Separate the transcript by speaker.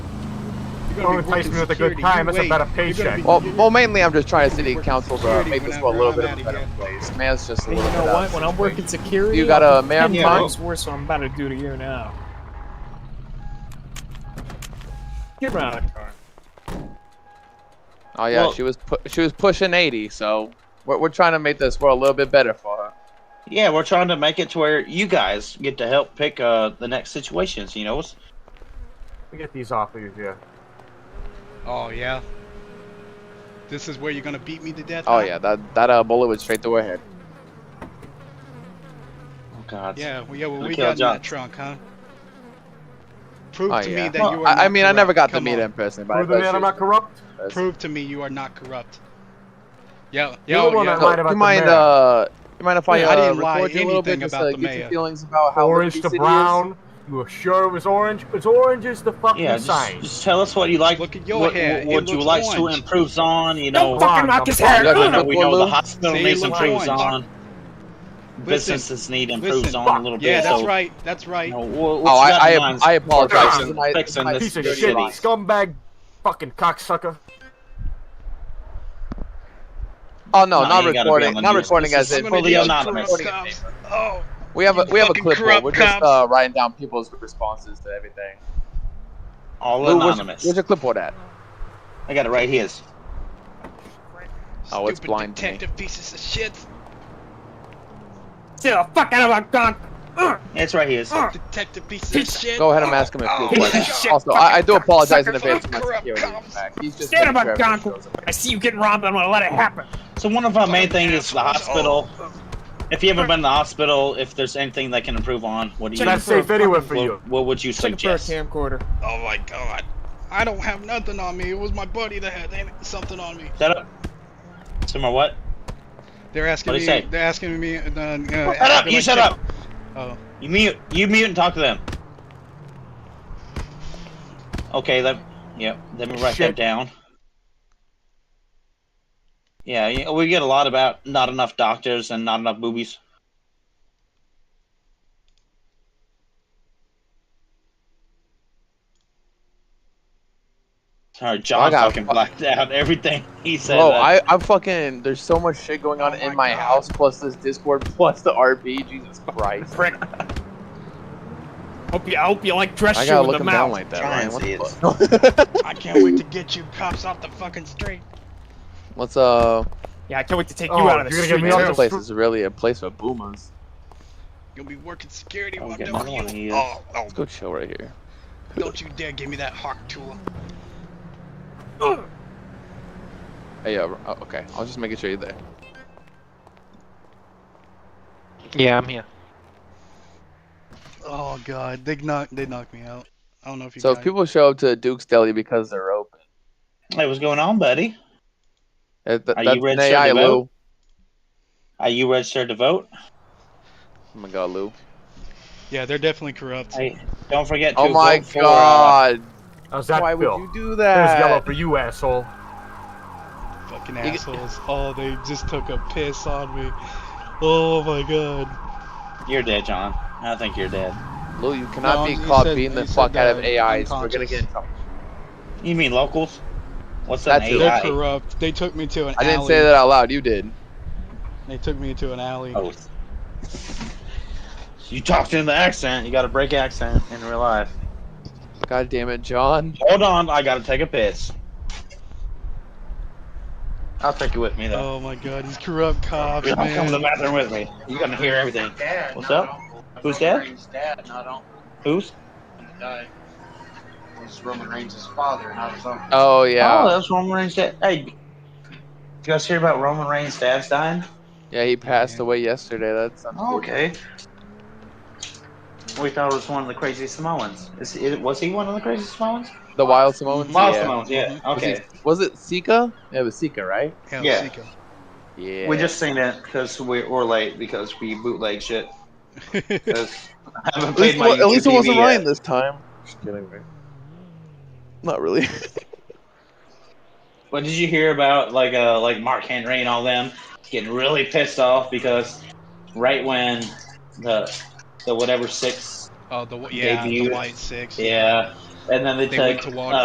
Speaker 1: You're
Speaker 2: Don't
Speaker 1: gonna be
Speaker 2: replace
Speaker 1: working
Speaker 2: me with a good
Speaker 1: security.
Speaker 2: time,
Speaker 1: You
Speaker 2: it's a
Speaker 1: wait.
Speaker 2: better
Speaker 1: You're gonna
Speaker 2: paycheck.
Speaker 1: be-
Speaker 3: Well,
Speaker 1: you're-
Speaker 3: well, mainly I'm just trying to city council to
Speaker 1: Security
Speaker 3: make this
Speaker 1: when
Speaker 3: world a
Speaker 1: I'm-
Speaker 3: little
Speaker 1: I'm
Speaker 3: bit of
Speaker 1: outta
Speaker 3: a better
Speaker 1: here.
Speaker 3: place. Man's just a
Speaker 4: And
Speaker 3: little
Speaker 4: you
Speaker 3: bit
Speaker 4: know
Speaker 3: out
Speaker 4: what?
Speaker 3: of
Speaker 4: When I'm working
Speaker 3: situation.
Speaker 4: security,
Speaker 3: You got a
Speaker 4: I'm
Speaker 3: man
Speaker 4: ten
Speaker 1: punch?
Speaker 4: times worse than I'm about to do to you now. Get around the car.
Speaker 3: Oh yeah,
Speaker 5: Well-
Speaker 3: she was pu- she was pushing 80, so we're, we're trying to make this world a little bit better for her.
Speaker 5: Yeah, we're trying to make it to where you guys get to help pick uh, the next situations. You know, It's-
Speaker 2: We get these off of you here.
Speaker 1: Oh yeah. This is where you're gonna beat me to death.
Speaker 3: Oh
Speaker 1: huh?
Speaker 3: yeah, that that uh, bullet went straight through her head.
Speaker 5: oh god.
Speaker 1: Yeah, well, yeah. Well, we
Speaker 5: Okay,
Speaker 1: got in
Speaker 5: John.
Speaker 1: that trunk, huh? Prove
Speaker 3: Oh,
Speaker 1: to
Speaker 3: yeah.
Speaker 1: me that
Speaker 5: Well,
Speaker 1: you are.
Speaker 3: I, I
Speaker 1: not
Speaker 3: mean, I never got
Speaker 1: corrupt.
Speaker 3: to
Speaker 1: Come
Speaker 3: meet
Speaker 1: on.
Speaker 3: her in person, but I
Speaker 2: Prove to
Speaker 3: bet
Speaker 2: me that
Speaker 3: she
Speaker 2: I'm
Speaker 3: was
Speaker 2: not corrupt.
Speaker 3: nice.
Speaker 1: Prove to me you are not corrupt. Yeah,
Speaker 2: You're
Speaker 1: yeah,
Speaker 2: the one
Speaker 1: yeah.
Speaker 2: that lied
Speaker 3: So,
Speaker 2: about
Speaker 3: you
Speaker 2: the
Speaker 3: mind
Speaker 2: mayor.
Speaker 3: uh, you mind if I,
Speaker 1: Yeah,
Speaker 3: uh,
Speaker 1: I didn't lie
Speaker 3: record you a little bit
Speaker 1: anything
Speaker 3: just
Speaker 1: about
Speaker 3: to
Speaker 1: the
Speaker 3: get your
Speaker 1: mayor.
Speaker 3: feelings about how
Speaker 2: Orange
Speaker 3: risky
Speaker 2: to
Speaker 3: city is?
Speaker 2: brown. You were sure it was orange? It's orange is the fucking
Speaker 5: Yeah,
Speaker 2: sign.
Speaker 5: just, just tell us what you like.
Speaker 1: Look at your
Speaker 5: what,
Speaker 1: hair,
Speaker 5: What,
Speaker 1: it
Speaker 5: what you
Speaker 1: looks
Speaker 5: like to
Speaker 1: orange.
Speaker 5: improve on. You
Speaker 4: Don't
Speaker 5: know,
Speaker 2: fuck-
Speaker 4: fucking knock his
Speaker 2: Come
Speaker 4: hair.
Speaker 2: on,
Speaker 5: Look,
Speaker 2: come
Speaker 5: look,
Speaker 3: on.
Speaker 4: Look,
Speaker 5: we know the hospital
Speaker 1: See,
Speaker 5: needs
Speaker 1: look
Speaker 5: improves
Speaker 1: orange.
Speaker 5: on.
Speaker 1: Listen.
Speaker 5: Businesses need improves
Speaker 1: Listen.
Speaker 5: on a little bit.
Speaker 1: Yeah, that's
Speaker 5: so,
Speaker 1: right. That's right.
Speaker 5: You know, what,
Speaker 3: Oh,
Speaker 5: what you got
Speaker 3: I
Speaker 5: in
Speaker 3: I,
Speaker 5: mind
Speaker 3: I apologize.
Speaker 5: fixing-
Speaker 3: Tonight-
Speaker 5: fixing
Speaker 3: tonight-
Speaker 5: this
Speaker 2: Piece of
Speaker 5: security
Speaker 2: shit,
Speaker 5: line.
Speaker 2: scumbag, fucking cocksucker.
Speaker 3: Oh no,
Speaker 5: No,
Speaker 3: not
Speaker 5: you gotta be
Speaker 3: recording.
Speaker 5: on the
Speaker 3: Not
Speaker 5: news.
Speaker 3: recording
Speaker 5: This
Speaker 3: as
Speaker 5: is
Speaker 3: in
Speaker 5: gonna be
Speaker 3: fully
Speaker 5: on
Speaker 3: anonymous.
Speaker 5: anonymous.
Speaker 3: Recording
Speaker 1: cops.
Speaker 3: as in-
Speaker 1: Oh,
Speaker 3: We have a
Speaker 1: You
Speaker 3: we have a
Speaker 1: fucking
Speaker 3: clipboard.
Speaker 1: corrupt
Speaker 3: We're just
Speaker 1: cops.
Speaker 3: uh, writing down people's responses to everything.
Speaker 5: All
Speaker 3: Lou, where's,
Speaker 5: anonymous.
Speaker 3: where's your clipboard at?
Speaker 5: I got it right here.
Speaker 3: Oh, it's
Speaker 1: stupid
Speaker 3: blind to me.
Speaker 1: detective pieces of shit.
Speaker 4: Get the fuck out of my gun. Ugh.
Speaker 5: Yeah, It's right here. It's-
Speaker 4: Ugh.
Speaker 1: Detective pieces
Speaker 4: Pizza.
Speaker 1: of shit.
Speaker 3: Go ahead and ask him a few
Speaker 1: Oh,
Speaker 3: questions.
Speaker 4: shit,
Speaker 3: Also, I, I do
Speaker 4: fucking
Speaker 3: apologize in
Speaker 4: cocksucker.
Speaker 3: advance for my
Speaker 1: Corrupt
Speaker 3: security.
Speaker 1: cops.
Speaker 3: back. He's just
Speaker 4: Stand
Speaker 3: making
Speaker 4: up,
Speaker 3: sure everything
Speaker 4: Gonk.
Speaker 3: shows up.
Speaker 4: I see you getting robbed. I'm gonna let it happen.
Speaker 5: So one of our main
Speaker 1: Fucking
Speaker 5: things is the
Speaker 1: assholes.
Speaker 5: hospital. If you haven't been to the hospital, if there's anything they can improve on, what do you?
Speaker 4: Check
Speaker 2: That's
Speaker 4: for a
Speaker 2: safe anywhere
Speaker 4: fucking
Speaker 2: for
Speaker 5: what,
Speaker 2: you.
Speaker 5: what would you
Speaker 4: Looking for a
Speaker 5: suggest?
Speaker 4: camcorder.
Speaker 1: Oh my god. I don't have nothing on me. It was my buddy that had an- something on me.
Speaker 5: Shut up. Some more what?
Speaker 1: They're asking
Speaker 5: What'd
Speaker 1: me.
Speaker 5: he say?
Speaker 1: They're asking me. Uh, uh,
Speaker 5: Shut up! You shut up!
Speaker 1: Oh,
Speaker 5: You mute. You mute and talk to them. Okay. Let. Yep. Let me write
Speaker 2: Shit.
Speaker 5: that down. Yeah, you know, we get a lot about not enough doctors and not enough boobies. Sorry, John
Speaker 3: got-
Speaker 5: fucking blacked out everything he said.
Speaker 3: Bro,
Speaker 5: uh,
Speaker 3: I, I'm fucking. There's so much shit going on
Speaker 1: Oh
Speaker 3: in
Speaker 1: my
Speaker 3: my
Speaker 1: God.
Speaker 3: house, plus this Discord, plus the RP. Jesus Christ.
Speaker 4: Prick. hope you. I hope you like dress
Speaker 3: I
Speaker 4: shoe
Speaker 3: gotta
Speaker 4: in
Speaker 3: look
Speaker 4: the
Speaker 3: him
Speaker 4: mouth.
Speaker 3: down like that,
Speaker 5: Try
Speaker 3: Ryan.
Speaker 5: and
Speaker 3: What
Speaker 5: see
Speaker 3: the fuck?
Speaker 1: I can't wait to get you cops off the fucking street.
Speaker 3: Let's uh.
Speaker 4: yeah, I can't wait to take you
Speaker 2: Oh,
Speaker 4: out of the
Speaker 2: you're gonna
Speaker 4: street.
Speaker 2: get me
Speaker 4: too.
Speaker 2: off
Speaker 3: This
Speaker 2: the
Speaker 3: place
Speaker 2: str-
Speaker 3: is really a place for boomers.
Speaker 1: You'll be working security
Speaker 5: I'm
Speaker 1: while
Speaker 5: getting
Speaker 1: doing
Speaker 5: another one of
Speaker 1: you.
Speaker 5: these.
Speaker 1: Oh, oh,
Speaker 3: Let's go chill right here.
Speaker 1: don't you dare give me that hawk tool.
Speaker 4: Ugh.
Speaker 3: Hey, yeah. Oh, okay. I was just making sure you're there.
Speaker 6: Yeah, I'm here.
Speaker 1: Oh god, they knocked. They knocked me out. I don't know if you.
Speaker 3: So if
Speaker 1: guys-
Speaker 3: people show up to Duke's Deli because they're open,
Speaker 5: Hey, what's going on, buddy?
Speaker 3: that, that,
Speaker 5: Are
Speaker 3: Uh,
Speaker 5: you
Speaker 3: that's an
Speaker 5: registered to
Speaker 3: AI, Lou.
Speaker 5: vote? Are you registered to vote?
Speaker 3: Oh my god, Lou.
Speaker 1: Yeah, they're definitely corrupt.
Speaker 5: Hey, don't forget to
Speaker 3: Oh my
Speaker 5: vote for, uh,
Speaker 3: god.
Speaker 2: How's that
Speaker 3: Why
Speaker 2: feel?
Speaker 3: would you do
Speaker 2: There's yellow
Speaker 3: that?
Speaker 2: for you, asshole.
Speaker 1: Fucking
Speaker 3: You-
Speaker 1: assholes. Oh, they just took a piss on me. Oh my god.
Speaker 5: You're dead, John. I think you're dead.
Speaker 3: Lou, you cannot
Speaker 1: No,
Speaker 3: be
Speaker 1: you
Speaker 3: caught
Speaker 1: said-
Speaker 3: beating the
Speaker 1: you said
Speaker 3: fuck out of
Speaker 1: that
Speaker 3: AIs. We're gonna
Speaker 1: unconscious.
Speaker 3: get in trouble.
Speaker 5: You mean locals? What's that?
Speaker 3: That's it.
Speaker 1: They're
Speaker 5: AI?
Speaker 1: corrupt. They took me to an
Speaker 3: I
Speaker 1: alley.
Speaker 3: didn't say that out loud. You did.
Speaker 1: They took me to an alley.
Speaker 5: Oh. You talked in the accent. You got to break accent in real life.
Speaker 3: God damn it, John.
Speaker 5: Hold on, I got to take a piss. I'll take you with me though.
Speaker 1: Oh my god, these corrupt cops,
Speaker 5: Come
Speaker 1: Oh, man.
Speaker 5: to the bathroom with me. You're gonna hear everything. What's up? Who's dead?
Speaker 7: dad, not uncle,
Speaker 5: Who's?
Speaker 7: and the guy was Roman Reigns' father, not his uncle.
Speaker 3: Oh yeah.
Speaker 5: Oh, that was Roman Reigns' dad. Hey, you guys hear about Roman Reigns' dad's dying?
Speaker 3: Yeah, he passed
Speaker 1: Yeah.
Speaker 3: away yesterday. That's unfortunate.
Speaker 5: Okay. We thought it was one of the crazy Samoans. Is, is was he one of the crazy Samoans?
Speaker 3: The Wild Samoans.
Speaker 5: Miles
Speaker 3: yeah.
Speaker 5: Samoans, yeah.
Speaker 3: Mm-hmm. Was, he-
Speaker 5: Okay.
Speaker 3: was it Sika? Yeah, it was Sika, right?
Speaker 1: Hell,
Speaker 5: Yeah.
Speaker 1: Sika.
Speaker 3: Yeah.
Speaker 5: We just seen it because we, we're late because we bootleg shit. 'Cause I haven't
Speaker 3: At least,
Speaker 5: played
Speaker 3: it
Speaker 5: my
Speaker 3: wa- at least it
Speaker 5: YouTube
Speaker 3: wasn't
Speaker 5: yet.
Speaker 3: Ryan this time. Just kidding, man. Not really.
Speaker 5: What did you hear about like uh like Mark Henry and all them getting really pissed off because right when the the whatever six
Speaker 1: Oh, the yeah,
Speaker 5: Debut.
Speaker 1: the white six.
Speaker 5: yeah and then they,
Speaker 1: They
Speaker 5: took
Speaker 1: went to Walmart.
Speaker 5: uh,